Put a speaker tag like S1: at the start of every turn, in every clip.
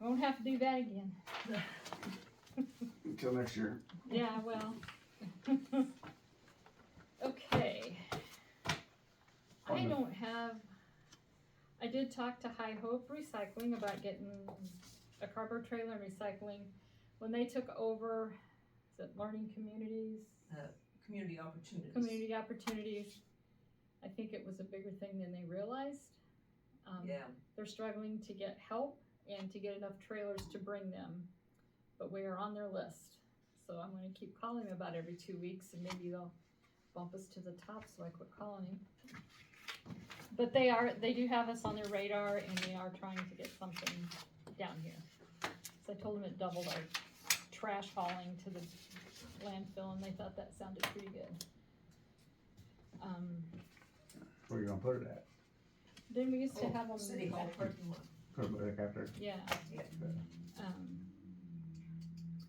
S1: Won't have to do that again.
S2: Until next year.
S1: Yeah, well. Okay. I
S2: On the-
S1: don't have, I did talk to High Hope Recycling about getting a cardboard trailer and recycling. When they took over, is it Learning Communities,
S3: community opportunities.
S1: Community Opportunities? I think it was a bigger thing than they realized. Um,
S3: Yeah,
S1: They're struggling to get help and to get enough trailers to bring them, but we are on their list. So I'm gonna keep calling them about every two weeks and maybe they'll bump us to the top so I quit calling them. But they are, they do have us on their radar and they are trying to get something down here. So I told them it doubled our trash hauling to the landfill and they thought that sounded pretty good. Um,
S2: Where you gonna put it at?
S1: then we used to
S3: Oh,
S1: have them.
S3: city hall parking lot.
S2: Put it back after.
S1: Yeah.
S3: Yeah.
S1: Um,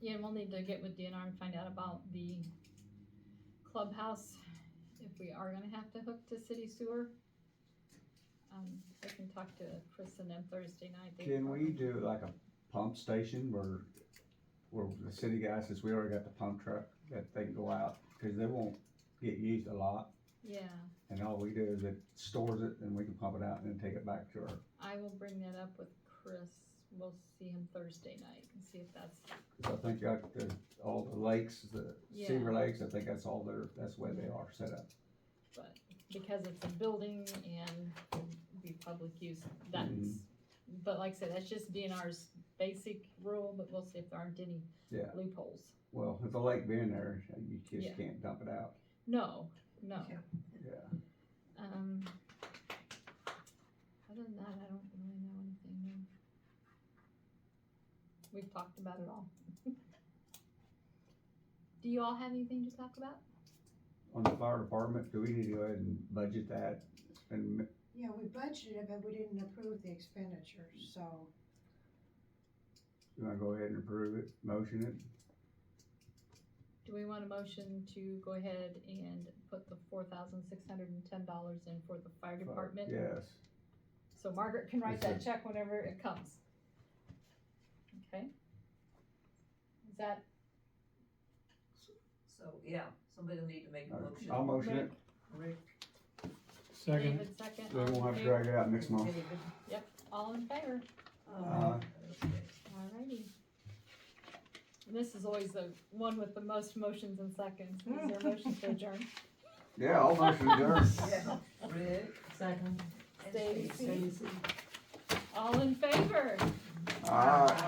S1: yeah, and we'll need to get with DNR and find out about the clubhouse, if we are gonna have to hook to city sewer. Um, I can talk to Chris and them Thursday night. They
S2: Can we
S1: probably-
S2: do like a pump station where, where the city guys, since we already got the pump truck, that they can go out? Cause they won't get used a lot
S1: Yeah,
S2: and all we do is it stores it and we can pump it out and then take it back to our,
S1: I will bring that up with Chris, we'll see him Thursday night and see if that's,
S2: cause I think like the, all the lakes, the
S1: Yeah.
S2: Seaver Lakes, I think that's all their, that's the way they are set up.
S1: but because it's a building and be public use, that's. But like I said, that's just DNR's basic rule, but we'll see if there aren't any
S2: Yeah.
S1: loopholes.
S2: Well, with the lake being there, you
S1: Yeah.
S2: just can't dump it out,
S1: No, no.
S3: Yeah.
S2: yeah.
S1: Um, other than that, I don't really know anything new. We've talked about it all. Do you all have anything to talk about?
S2: On the fire department, do we need to go ahead and budget that and
S4: Yeah, we budgeted, but we didn't approve the expenditure, so
S2: You wanna go ahead and approve it, motion it?
S1: Do we want a motion to go ahead and put the four thousand six hundred and ten dollars in for the fire department?
S2: Yes,
S1: So Margaret can write
S2: Yes,
S1: that
S2: sir.
S1: check whenever it comes. Okay? Is that
S3: So, yeah, somebody will need to make a motion.
S2: I'll motion it,
S3: Rick.
S5: Second,
S1: David second?
S2: we won't
S1: All in
S2: have to
S1: favor?
S2: drag it out next month. Uh,
S3: David.
S1: All in favor?
S3: Um, okay.
S1: Alrighty. And This is always the one with the most motions and seconds. Is there a motion to adjourn?
S2: Yeah, I'll motion adjourn.
S3: Yeah, Rick. Second.
S1: Stacy. All in favor?
S2: All right.